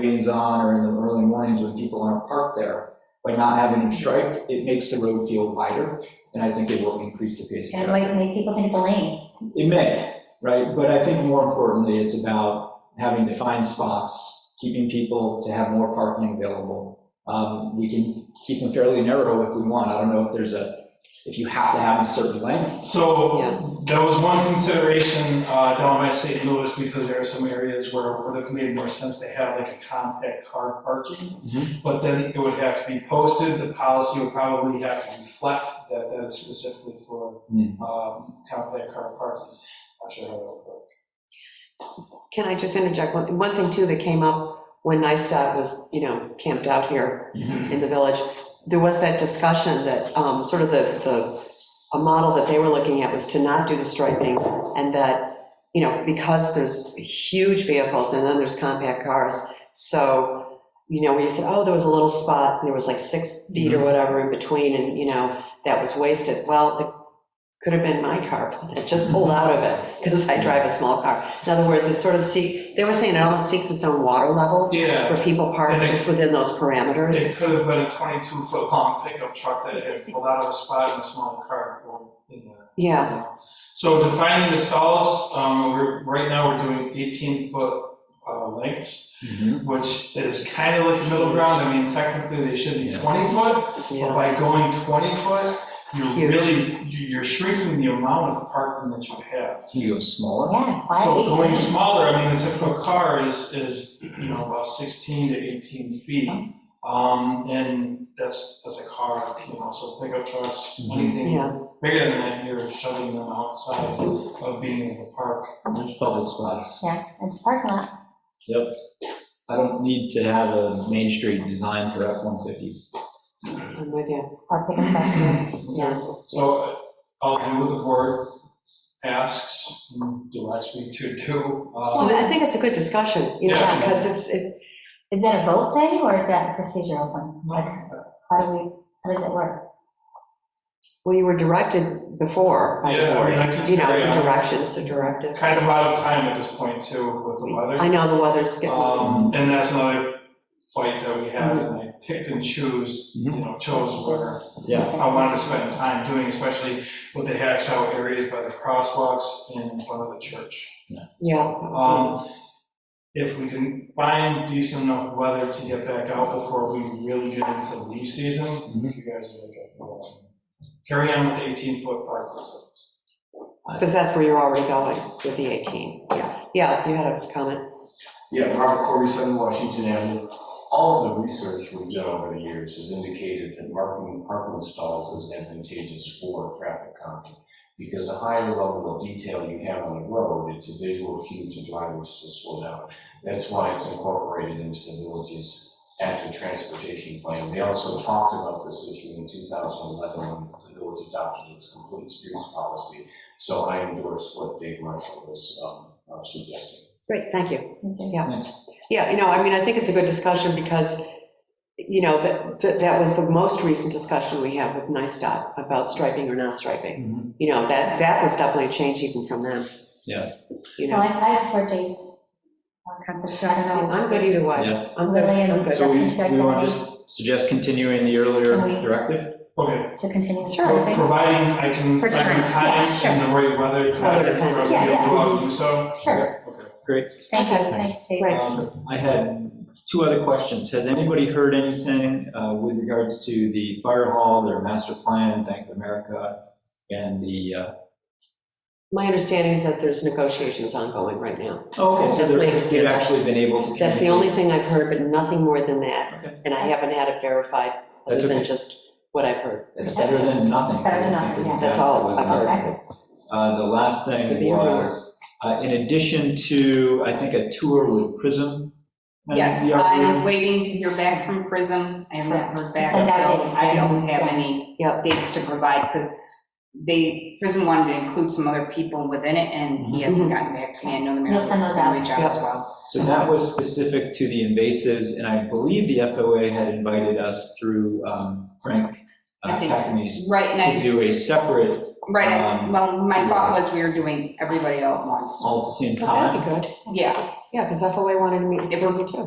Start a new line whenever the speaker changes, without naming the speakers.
games on or in the early mornings when people aren't parked there, by not having them striped, it makes the road feel wider, and I think it will increase the pace of
And
traffic.
like, make people think it's a lane.
It may, right? But I think more importantly, it's about having defined spots, keeping people to have more parking available. Um, We can keep them fairly narrow if we want. I don't know if there's a, if you have to have a certain length.
So there was one consideration uh, down by St. Louis, because there are some areas where it would have made more sense to have like a compact car parking.
Mhm.
But then it would have to be posted, the policy would probably have to reflect that that is specifically for
Hmm.
um, compact car parking. Not sure how that would work.
Can I just interject? One one thing too that came up when NISTOD was, you know, camped out here in the village, there was that discussion that um, sort of the, the, a model that they were looking at was to not do the striping and that, you know, because there's huge vehicles and then there's compact cars. So, you know, when you said, oh, there was a little spot and there was like six feet
Mm-hmm.
or whatever in between and, you know, that was wasted. Well, it could have been my car, but it just pulled out of it because I drive a small car. In other words, it sort of seek, they were saying it almost seeks its own water level
Yeah,
where people park
And it-
just within those parameters.
it could have been a 22-foot long pickup truck that had pulled out of a spot in a small car pulled in there.
Yeah,
So defining the stalls, um, we're, right now, we're doing 18-foot uh, lengths, which is kind of like the middle ground. I mean, technically, they should be
Yeah.
20-foot, but
yeah,
by going 20-foot,
It's
you're
huge.
really, you're shrinking the amount of parking that you have.
Can you go smaller?
Yeah,
So
why
going
18?
smaller, I mean, the typical car is, is, you know, about 16 to 18 feet. Um, And that's, that's a car, you know, so pickup trucks,
Mhm.
anything
yeah.
bigger than that, you're shoving them outside of being in the park.
There's public spots.
Yeah, it's a parking lot.
Yep. I don't need to have a main street designed for F-150s.
I'm with you.
Or pick them up
Mm-hmm.
here.
Yeah.
So uh, I'll do what the board asks, and directs me to do.
Well,
Uh,
I think it's a good discussion, you know,
Yeah.
because it's, it,
Is that a vote thing or is that a procedural thing? Like, how do we, how does it work?
well, you were directed before. by the
Yeah, I
board.
mean, I can-
You know, it's a
yeah.
direction, it's a directive.
Kind of out of time at this point too with the
I
weather.
know the weather's getting,
Um, And that's another fight that we had, and I picked and chose, you know, chose where
Yeah.
I wanted to spend time doing, especially with the hatched out areas by the crosswalks in front of the church.
yeah.
Um, If we can find decent enough weather to get back out before we really get into leaf season, if you guys are like, uh, carry on with the 18-foot park list.
Because that's where you're already going with the 18, yeah. Yeah, you had a comment.
Yeah, Robert Corby, 7 Washington Avenue. All of the research we've done over the years has indicated that marking parking stalls is advantageous for traffic calming. Because the higher level of detail you have on the road, it's a visual cue to drivers to slow down. That's why it's incorporated into the village's active transportation plan. They also talked about this issue in 2011 when the village adopted its complete streets policy. So I endorse what Dave Marshall was um, uh, suggesting.
Great, thank you. Yeah.
Thanks.
Yeah, you know, I mean, I think it's a good discussion because, you know, that, that- that was the most recent discussion we had with NISTOD about striping or not striping.
Mhm.
You know, that, that was definitely a change even from them.
Yeah.
You
No,
know,
I, I support Dave's uh, concept, too. I don't know.
I'm good either way.
Yeah.
I'm good,
Lily
I'm
and
good.
So we,
Justin, you guys
we
have
want to
any
just suggest continuing the earlier
Can we-
directive?
Okay,
to continue?
Sure.
the
pro-
voting?
providing I can
For time,
find
yeah,
time
sure.
and the right weather
It's weather
pattern for us to
dependent.
be
Yeah,
able to go out and do so.
Sure,
Okay.
Great.
thank you,
Okay.
thanks, Dave.
Right.
Um, I had two other questions. Has anybody heard anything uh, with regards to the fire hall, their master plan, Bank of America, and the, uh,
My understanding is that there's negotiations ongoing right now.
oh, okay, so
That's my
they're- they've
understanding.
actually been able to communicate?
That's the only thing I've heard, but nothing more than that.
Okay.
And I haven't had it verified, other
That's
than
okay.
just what I've heard.
It's better than nothing.
It's better than nothing, yeah.
That's all
That was
I've
another
heard.
thing. Uh, The last
Could
thing
be a rumor.
was, uh, in addition to, I think, a tour with Prism. uh,
Yes,
the
I am
operator.
waiting to hear back from Prism. I have not heard back, so
Send out dates.
I don't have any
Yep.
dates to provide because they, Prism wanted to include some other people within it, and he hasn't gotten back to me. I know the mayor
You'll
was
send those out.
going to reach out as
Yep.
well.
So that was specific to the invasives, and I believe the FOA had invited us through um, Frank
I think-
Cackney's
Right, and
to
I,
do a separate,
right, I-
Um,
well, my thought was we were doing everybody all at once.
all at the same
Oh, That'd
time.
be good.
Yeah,
Yeah, because FOA wanted me, it was me too.